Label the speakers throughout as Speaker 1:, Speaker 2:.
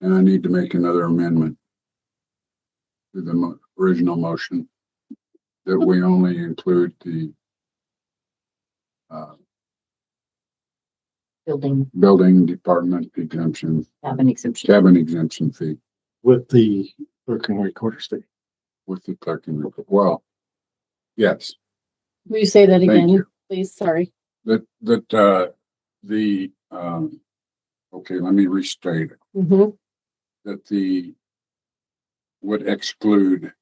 Speaker 1: And I need to make another amendment to the mo- original motion that we only include the uh,
Speaker 2: building
Speaker 1: building department exemption,
Speaker 2: cabin exemption.
Speaker 1: cabin exemption fee
Speaker 3: with the clerk and recorder's fee.
Speaker 1: with the clerk and, rec- well, yes,
Speaker 4: Will you say that
Speaker 1: Thank
Speaker 4: again,
Speaker 1: you.
Speaker 4: please? Sorry.
Speaker 1: that, that, uh, the, um, okay, let me restate it.
Speaker 2: Mm-hmm.
Speaker 4: Mhm.
Speaker 1: that the would exclude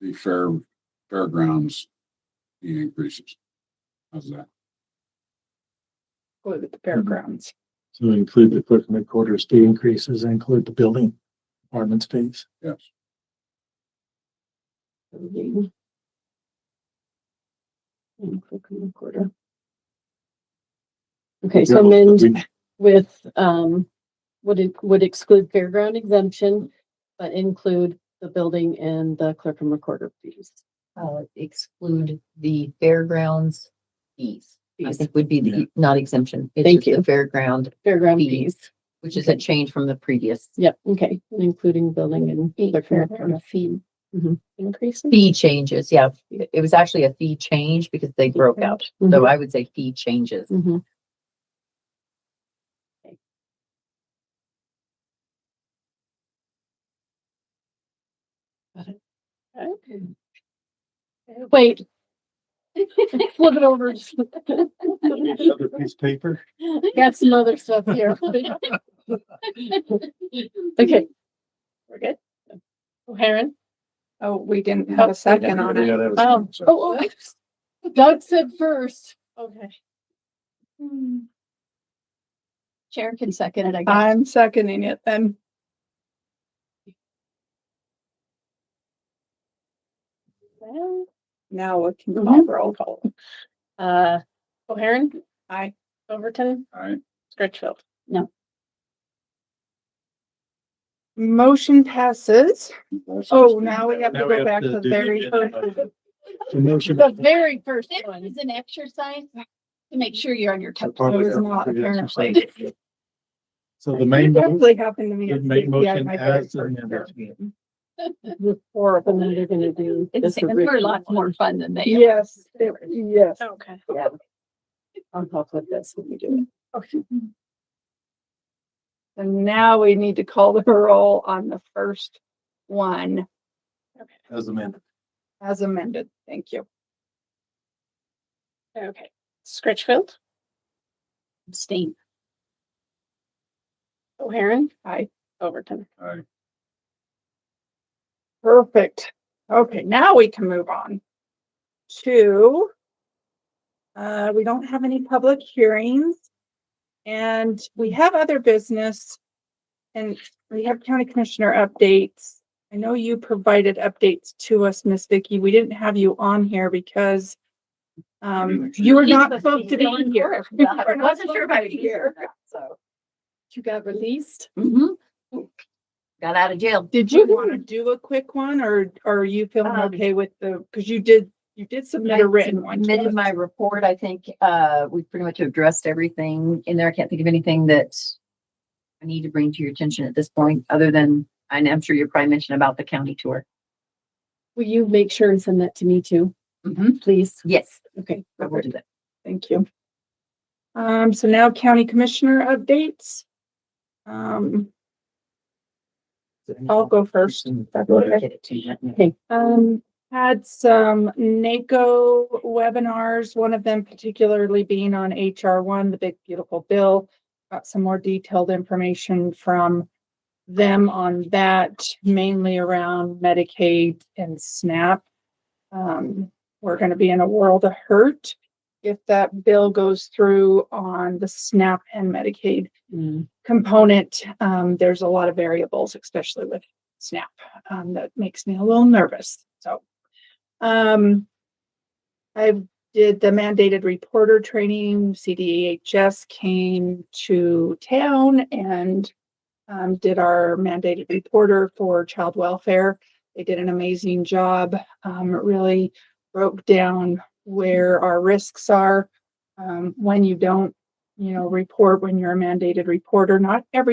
Speaker 1: the fair, fairgrounds, the increases. How's that?
Speaker 4: Go to the fairgrounds.
Speaker 3: So include the clerk and recorder's fee increases, include the building department's fees.
Speaker 1: Yes.
Speaker 4: Building. And click on recorder. Okay, so amend
Speaker 3: We-
Speaker 4: with, um, would it, would exclude fairground exemption, but include the building and the clerk and recorder fees.
Speaker 2: Uh, exclude the fairgrounds fees. I
Speaker 4: Fees.
Speaker 2: think would be
Speaker 3: Yeah.
Speaker 2: the, e, not exemption. It's
Speaker 4: Thank
Speaker 2: just the
Speaker 4: you.
Speaker 2: Fairground,
Speaker 4: Fairground
Speaker 2: Fees.
Speaker 4: fees.
Speaker 2: which is a change from the previous
Speaker 4: Yep, okay, including building and. clerk and recorder. Mm-hmm.
Speaker 5: fee increase.
Speaker 2: fee changes. Yeah, it was actually a fee change because they broke out. So
Speaker 4: Mhm,
Speaker 2: I would say fee changes.
Speaker 4: mhm. Got it. Okay. Wait. Flip it over.
Speaker 3: Another piece of paper.
Speaker 4: Got some other stuff here. Okay. We're good? O'Hairn?
Speaker 5: Oh, we didn't have a second on it.
Speaker 3: that
Speaker 4: Oh,
Speaker 3: so-
Speaker 4: oh, oh, Doug said first. Okay.
Speaker 5: Chair can second it, I
Speaker 4: Uh,
Speaker 5: guess. I'm seconding it then.
Speaker 4: Well,
Speaker 5: Now we can call roll call.
Speaker 4: Uh, O'Hairn,
Speaker 5: Aye.
Speaker 4: Overton,
Speaker 1: All right,
Speaker 4: Scritchfield.
Speaker 5: Motion passes.
Speaker 1: that's-
Speaker 5: Oh, now we have to
Speaker 3: Now we
Speaker 5: go
Speaker 3: have
Speaker 5: back
Speaker 3: to
Speaker 5: to the
Speaker 3: do
Speaker 5: very
Speaker 3: the-
Speaker 5: first.
Speaker 3: The motion.
Speaker 4: The very first
Speaker 6: This
Speaker 4: one.
Speaker 6: is an exercise to make sure you're on your toes.
Speaker 5: It was not apparently.
Speaker 3: So the main, the
Speaker 5: Definitely happened to me. at
Speaker 3: main
Speaker 5: CPI,
Speaker 3: motion
Speaker 5: my very
Speaker 3: as
Speaker 5: first
Speaker 3: amended.
Speaker 5: term.
Speaker 4: Horrible. And then they're gonna do.
Speaker 6: It's,
Speaker 4: this
Speaker 6: we're
Speaker 4: original
Speaker 6: lots
Speaker 4: one.
Speaker 6: more fun than they are.
Speaker 5: Yes, it- yes.
Speaker 4: Okay. Yeah. On top of this, when we do
Speaker 5: And now we need to call the roll on the first one
Speaker 3: As amended.
Speaker 5: as amended. Thank you.
Speaker 4: it. Okay. Scritchfield,
Speaker 6: Abstain.
Speaker 4: O'Hairn,
Speaker 5: Aye.
Speaker 4: Overton.
Speaker 1: All right,
Speaker 5: Perfect. Okay, now we can move on to uh, we don't have any public hearings and we have other business and we have county commissioner updates. I know you provided updates to us, Miss Vicky. We didn't have you on here because um, you were not supposed to be on here.
Speaker 6: I wasn't sure if I was here.
Speaker 5: So,
Speaker 4: You got released?
Speaker 6: Mhm. Got out of jail.
Speaker 5: Did you want to do a quick one or or are you feeling
Speaker 6: Um,
Speaker 5: okay with the, because you did, you did submit a written one. to
Speaker 6: Submitted
Speaker 5: us.
Speaker 6: my report. I think, uh, we pretty much addressed everything in there. I can't think of anything that I need to bring to your attention at this point, other than, and I'm sure you probably mentioned about the county tour.
Speaker 4: Will you make sure and send that to me too,
Speaker 5: Mm-hmm.
Speaker 6: Mhm.
Speaker 4: please?
Speaker 6: Yes.
Speaker 4: Okay.
Speaker 6: I will do that.
Speaker 5: Thank you. Um, so now county commissioner updates. Um, I'll go first.
Speaker 6: Get it to you.
Speaker 5: Um, had some NACO webinars, one of them particularly being on HR one, the big beautiful bill. Got some more detailed information from them on that, mainly around Medicaid and SNAP. Um, we're gonna be in a world of hurt if that bill goes through on the SNAP and Medicaid
Speaker 4: Mm.
Speaker 5: component, um, there's a lot of variables, especially with SNAP, um, that makes me a little nervous. So, um, I did the mandated reporter training. CDHS came to town and um, did our mandated reporter for child welfare. They did an amazing job. Um, it really broke down where our risks are um, when you don't you know, report when you're a mandated reporter. Not every